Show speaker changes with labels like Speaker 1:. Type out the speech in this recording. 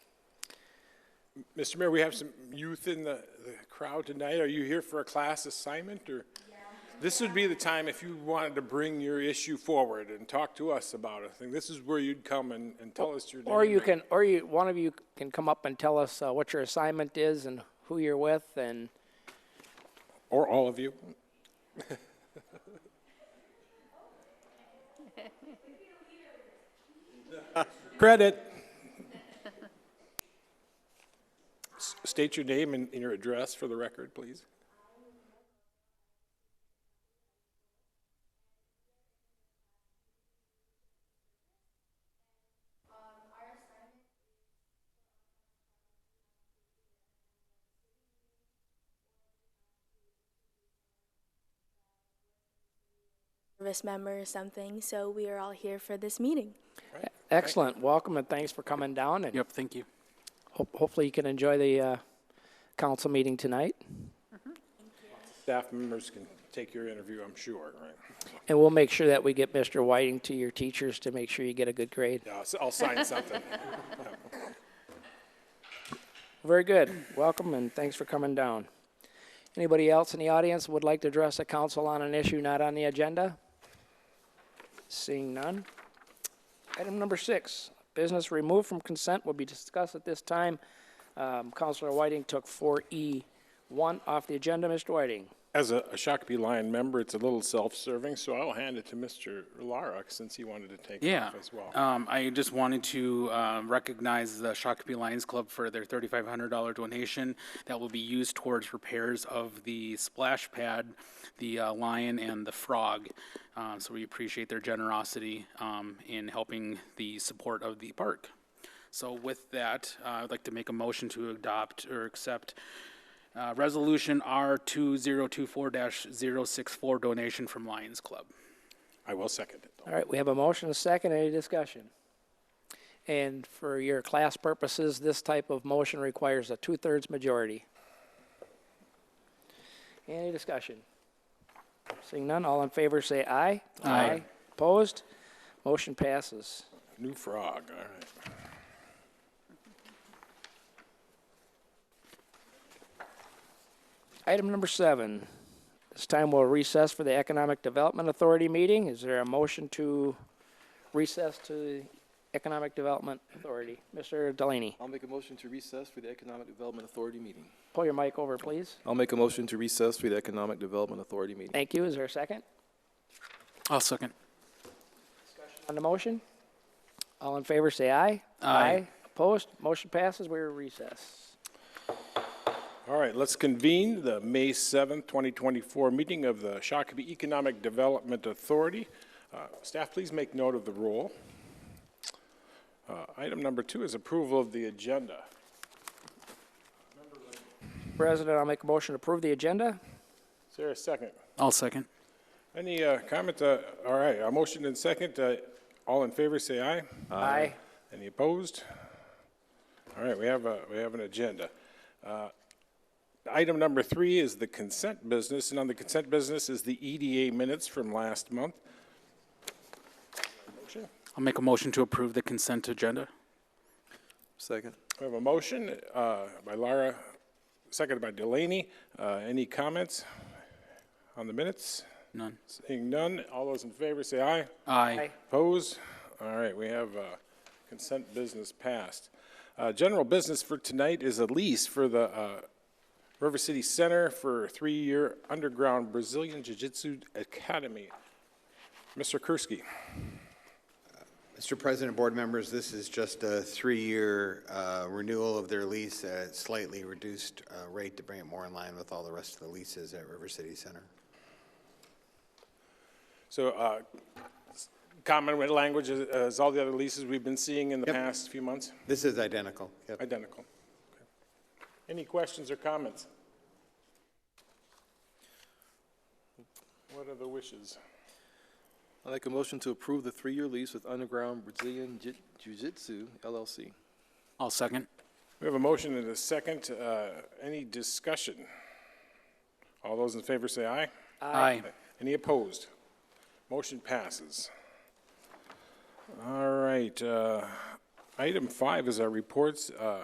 Speaker 1: Mr. Mayor, we have some youth in the, the crowd tonight. Are you here for a class assignment or? This would be the time if you wanted to bring your issue forward and talk to us about it. I think this is where you'd come and, and tell us your.
Speaker 2: Or
Speaker 1: name
Speaker 2: you
Speaker 1: and-
Speaker 2: can, or you, one of you can come up and tell us uh, what your assignment is and who you're with and,
Speaker 1: Or all of you. Credit. S- State your name and, and your address for the record, please.
Speaker 3: service member or something, so we are all here for this meeting.
Speaker 2: excellent. Welcome and thanks for coming down and
Speaker 4: Yep, thank you.
Speaker 2: hope- hopefully you can enjoy the uh, council meeting tonight.
Speaker 1: Staff members can take your interview, I'm sure, right?
Speaker 2: And we'll make sure that we get Mr. Whiting to your teachers to make sure you get a good grade.
Speaker 1: Yeah, I'll s- I'll sign something.
Speaker 2: Very good. Welcome and thanks for coming down. Anybody else in the audience would like to address the council on an issue not on the agenda? Seeing none. Item number six, business removed from consent will be discussed at this time. Um, Councilor Whiting took 4E1 off the agenda. Mr. Whiting?
Speaker 1: As a a Shakopee Lion member, it's a little self-serving, so I'll hand it to Mr. Larrock since he wanted to take it
Speaker 4: Yeah.
Speaker 1: off as well.
Speaker 4: Um, I just wanted to uh, recognize the Shakopee Lions Club for their $3,500 donation that will be used towards repairs of the splash pad, the uh, lion, and the frog. Uh, so we appreciate their generosity um, in helping the support of the park. So with that, uh, I'd like to make a motion to adopt or accept uh, Resolution R2024-064 donation from Lions Club.
Speaker 1: I will second it.
Speaker 2: All right, we have a motion, and a second, any discussion? And for your class purposes, this type of motion requires a two-thirds majority. Any discussion? Seeing none, all in favor say aye. Aye. Opposed? Motion passes.
Speaker 1: New frog, all right.
Speaker 2: Item number seven. This time we'll recess for the Economic Development Authority meeting. Is there a motion to recess to the Economic Development Authority? Mr. Delaney,
Speaker 5: I'll make a motion to recess for the Economic Development Authority meeting.
Speaker 2: pull your mic over, please.
Speaker 5: I'll make a motion to recess for the Economic Development Authority meeting.
Speaker 2: Thank you. Is there a second
Speaker 4: I'll second.
Speaker 2: on the motion? All in favor, say aye. Aye. Opposed? Motion passes. We're in recess.
Speaker 1: All right, let's convene the May 7th, 2024 meeting of the Shakopee Economic Development Authority. Uh, Staff, please make note of the roll. Uh, Item number two is approval of the agenda.
Speaker 2: President, I'll make a motion to approve the agenda.
Speaker 1: Is there a second?
Speaker 4: I'll second.
Speaker 1: Any uh, comment? uh, All right, a motion and second. uh, All in favor, say aye.
Speaker 2: Aye.
Speaker 1: Any opposed? All right, we have a, we have an agenda. Uh, Item number three is the consent business, and on the consent business is the EDA minutes from last month. Motion.
Speaker 4: I'll make a motion to approve the consent agenda.
Speaker 5: Second.
Speaker 1: We have a motion uh, by Lara, seconded by Delaney. Uh, Any comments on the minutes?
Speaker 4: None.
Speaker 1: Seeing none, all those in favor say aye.
Speaker 4: Aye.
Speaker 1: Opposed? All right, we have uh, consent business passed. Uh, General business for tonight is a lease for the uh, River City Center for a three-year underground Brazilian Jiu-Jitsu Academy. Mr. Kursky.
Speaker 6: Mr. President, board members, this is just a three-year uh, renewal of their lease at a slightly reduced uh, rate to bring it more in line with all the rest of the leases at River City Center.
Speaker 1: So uh, s- common with language as- as all the other leases we've been seeing in the past few months,
Speaker 6: This is identical. Yep.
Speaker 1: identical. Okay. Any questions or comments? What are the wishes?
Speaker 5: I'll make a motion to approve the three-year lease with Underground Brazilian Jiu- Jiu-Jitsu LLC.
Speaker 4: I'll second.
Speaker 1: We have a motion and a second. Uh, Any discussion? All those in favor say aye.
Speaker 4: Aye.
Speaker 1: Any opposed? Motion passes. All right, uh, item five is our reports. Uh,